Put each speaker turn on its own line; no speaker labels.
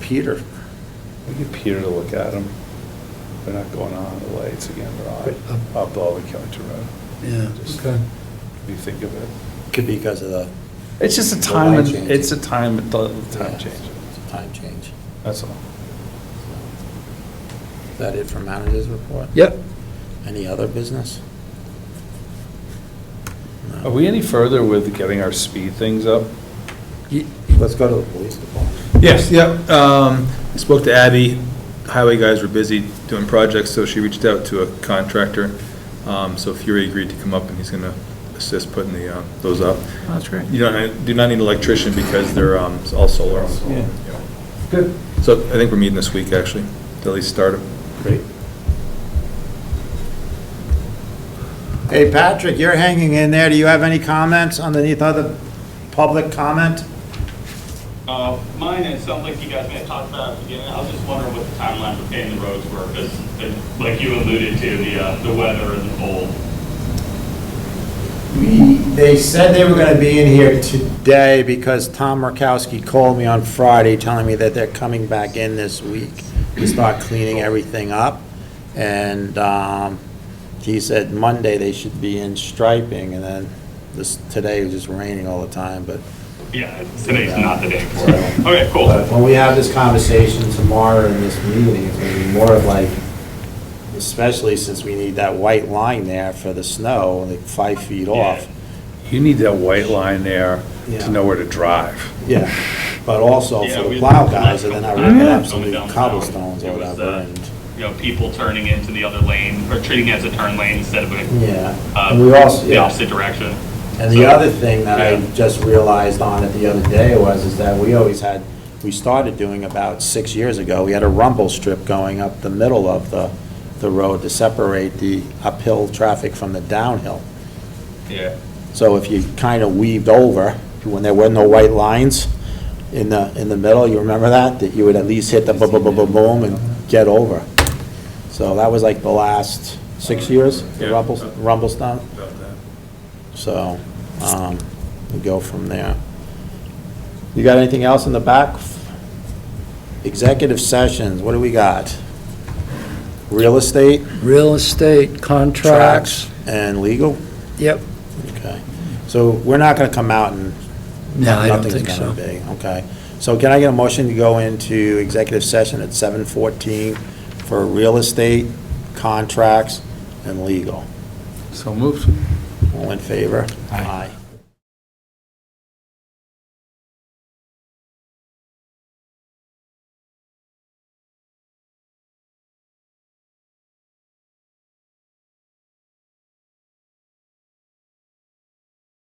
Peter.
We get Peter to look at them. They're not going on, the lights again, they're on, up all the Killington Road.
um, Yeah.
Just-
Okay.
If you think of it.
Could be because of the
It's just a
The
time,
line
and-
change.
it's a time, the time
Yeah.
change,
time change.
that's all.
Is that it for managers report?
Yep.
Any other business? No.
Are we any further with getting our speed things up?
Let's go to the police department.
Yes, yep. Um, I Spoke to Abby. Highway guys were busy doing projects, so she reached out to a contractor. Um, So Fury agreed to come up and he's going to assist putting the, uh, those up.
That's great.
You don't, do not need an electrician because they're um, all solar.
Yeah.
Good. So I think we're meeting this week, actually, to at least start them.
Great.
Hey, Patrick, you're hanging in there. Do you have any comments underneath other public comment?
Uh, Mine, it sounds like you guys may have talked about it at the beginning. I was just wondering what the timeline for paving the roads were, because like you alluded to, the, uh, the weather and the cold.
We, they said they were gonna be in here today because Tom Murkowski called me on Friday telling me that they're coming back in this week to start cleaning everything up. And, um, he said Monday they should be in striping and then this, today it was just raining all the time, but
Yeah, today's not the day for it. Okay, cool.
But when we have this conversation tomorrow in this meeting, it's gonna be more of like, especially since we need that white line there for the snow, like five feet off.
You need that white line there
Yeah.
to know where to drive.
Yeah, but also
Yeah,
for the
we-
plow guys, and then I
Yeah.
ripping up some
Going
of the
down the
cobblestones or
mountain. It was,
whatever,
uh,
and,
You know, people turning into the other lane, or treating it as a turn lane instead of a,
yeah.
uh,
And we also,
the
yeah.
opposite direction.
And the other thing that I
Yeah.
just realized on it the other day was, is that we always had, we started doing about six years ago, we had a rumble strip going up the middle of the, the road to separate the uphill traffic from the downhill.
Yeah.
So if you kind of weaved over, when there were no white lines in the, in the middle, you remember that? That you would at least hit the boom, boom, boom, boom, boom, and get over. So that was like the last six years, the
Yeah.
rumble, rumble stump.
About that.
So, um, we go from there. You got anything else in the back? Executive sessions, what do we got? Real estate,
Real estate, contracts.
tracks, and legal?
Yep.
Okay. So we're not gonna come out and.
No, I don't
nothing's
think
gonna
so.
be, Okay. So can I get a motion to go into executive session at seven fourteen for real estate, contracts, and legal?
So moved.
All in favor? Aye.